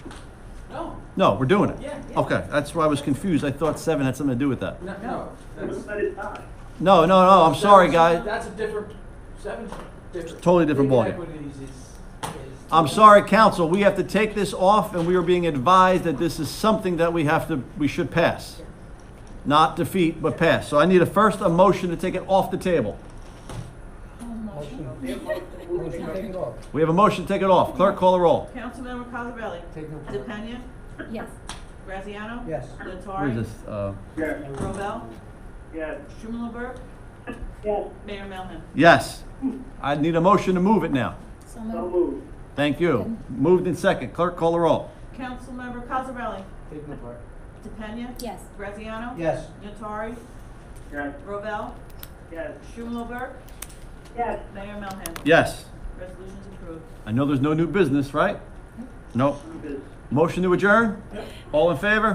No, we're doing it? Yeah, yeah. Okay, that's why I was confused. I thought seven had something to do with that. No, no. that's- But it's not. No, no, no, I'm sorry, that's- guys. That's a different, seven's different. Totally different Legal ballgame. equities is- is- I'm sorry, council, we have to take this off, and we are being advised that this is something that we have to, we should pass. Not defeat, but pass. So I need a first, a motion to take it off the table. Motion to take it off. We have a motion to take it off. Clerk, call the roll. Councilmember Cosarelli? Take no part. DePena? Yes. Graziano? Yes. Where is Nattari? this? Uh, Yes, Robel? yes, Schumelberg? yes, Mayor Melham? Yes. I need a motion to move it now. So so moved. moved. Thank you. Moved in second. Clerk, call the roll. Councilmember Cosarelli? Take no part. DePena? Yes. Graziano? Yes. Nattari? Yes, Robel? yes, Schumelberg? yes, Mayor Melham? Yes. Resolution's approved. I know there's no new business, right? Nope. new business. Motion to adjourn? All in favor?